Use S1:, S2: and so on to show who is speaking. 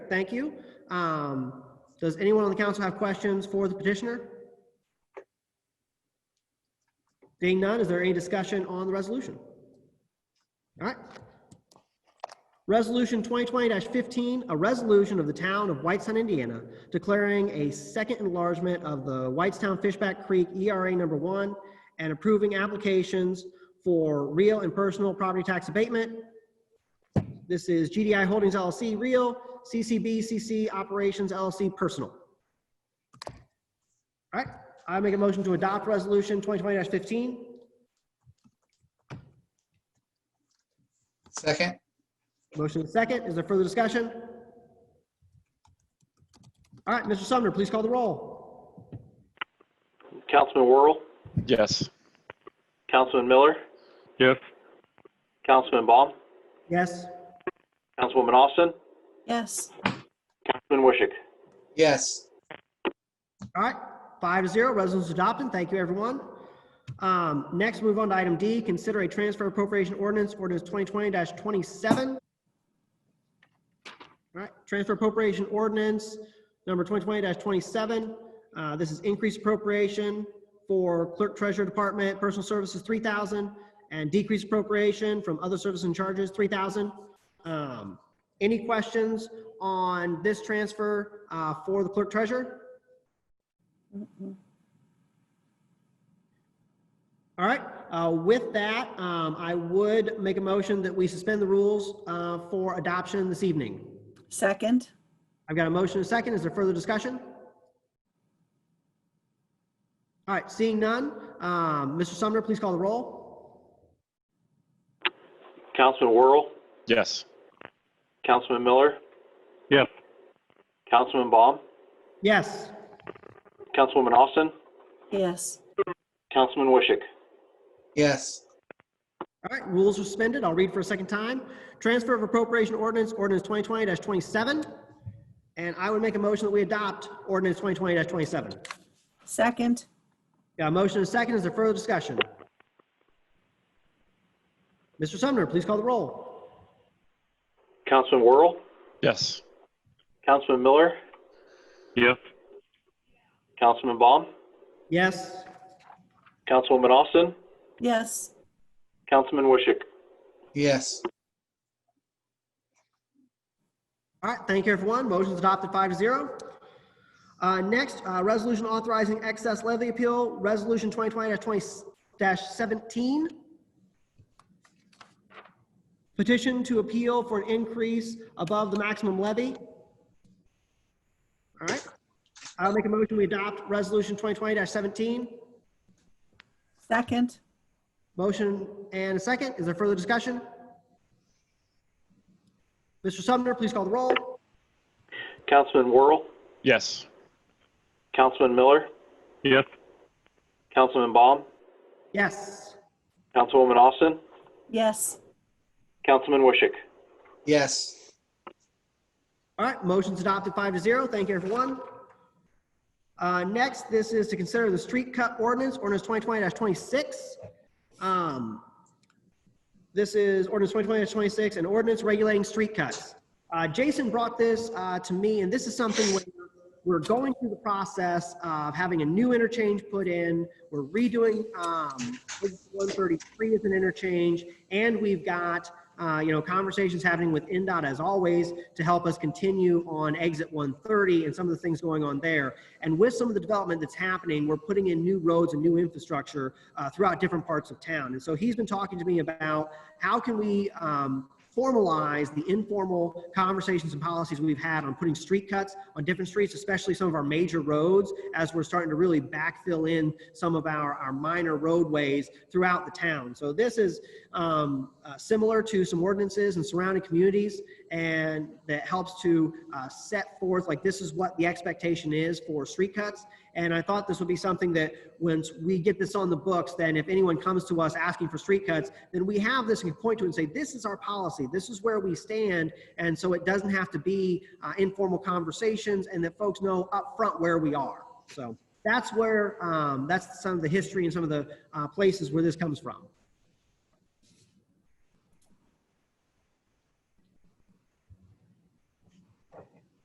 S1: thank you. Um, Does anyone on the council have questions for the petitioner? Being none, is there any discussion on the resolution? All right. Resolution 2020-15, a resolution of the town of Whitestown, Indiana, declaring a second enlargement of the Whitestown Fishback Creek ERA number one and approving applications for real and personal property tax abatement, this is GDI Holdings LLC Real, CCB CC Operations LLC Personal. All right, I make a motion to adopt Resolution 2020-15.
S2: Second?
S1: Motion is second. Is there further discussion? All right, Mr. Sumner, please call the roll.
S3: Councilman Worrell,
S4: Yes.
S3: Councilman Miller,
S4: Yes.
S3: Councilman Baum,
S1: Yes.
S3: Councilwoman Austin,
S5: yes,
S3: Councilman Wishick.
S2: Yes.
S1: All right, five to zero, resolution's adopted. Thank you, everyone. Um, Next, move on to item D, consider a transfer appropriation ordinance, ordinance 2020-27. All right, transfer appropriation ordinance number 2020-27. Uh, This is increased appropriation for clerk treasurer department, personal services, 3,000, and decreased appropriation from other services and charges, 3,000. Um, Any questions on this transfer uh, for the clerk treasurer? All right, uh, with that, um, I would make a motion that we suspend the rules uh, for adoption this evening.
S5: second,
S1: I've got a motion and a second. Is there further discussion? All right, seeing none, um, Mr. Sumner, please call the roll.
S3: Councilman Worrell,
S4: Yes.
S3: Councilman Miller,
S4: Yes.
S3: Councilman Baum,
S1: Yes.
S3: Councilwoman Austin,
S5: yes,
S3: Councilman Wishick.
S2: Yes.
S1: All right, rules are suspended. I'll read for a second time. Transfer of appropriation ordinance, ordinance 2020-27. And I would make a motion that we adopt ordinance 2020-27.
S5: second,
S1: Got a motion and a second. Is there further discussion? Mr. Sumner, please call the roll.
S3: Councilman Worrell,
S4: Yes.
S3: Councilman Miller,
S4: Yes.
S3: Councilman Baum,
S1: Yes.
S3: Councilwoman Austin,
S5: yes,
S3: Councilman Wishick.
S2: Yes.
S1: All right, thank you, everyone. Motion's adopted five to zero. Uh, Next, uh, resolution authorizing excess levy appeal, resolution 2020-20-17. Petition to appeal for an increase above the maximum levy. All right, I'll make a motion, we adopt resolution 2020-17.
S5: second,
S1: Motion and a second. Is there further discussion? Mr. Sumner, please call the roll.
S3: Councilman Worrell,
S4: Yes.
S3: Councilman Miller,
S4: Yes.
S3: Councilman Baum,
S1: Yes.
S3: Councilwoman Austin,
S5: yes,
S3: Councilman Wishick.
S2: Yes.
S1: All right, motion's adopted five to zero. Thank you, everyone. Uh, next, this is to consider the street cut ordinance, ordinance twenty twenty twenty-six. Um, this is ordinance twenty twenty twenty-six, an ordinance regulating street cuts. Uh, Jason brought this, uh, to me, and this is something where we're going through the process of having a new interchange put in. We're redoing, um, one thirty-three as an interchange, and we've got, uh, you know, conversations happening with NDOT as always to help us continue on exit 130 and some of the things going on there. And with some of the development that's happening, we're putting in new roads and new infrastructure uh, throughout different parts of town. And so he's been talking to me about how can we um, formalize the informal conversations and policies we've had on putting street cuts on different streets, especially some of our major roads, as we're starting to really backfill in some of our, our minor roadways throughout the town. So this is um, uh, similar to some ordinances in surrounding communities and that helps to uh, set forth like this is what the expectation is for street cuts. And I thought this would be something that once we get this on the books, then if anyone comes to us asking for street cuts, then we have this and can point to it and say, this is our policy, this is where we stand. And so it doesn't have to be uh, informal conversations and that folks know upfront where we are. So that's where, um, that's some of the history and some of the uh, places where this comes from.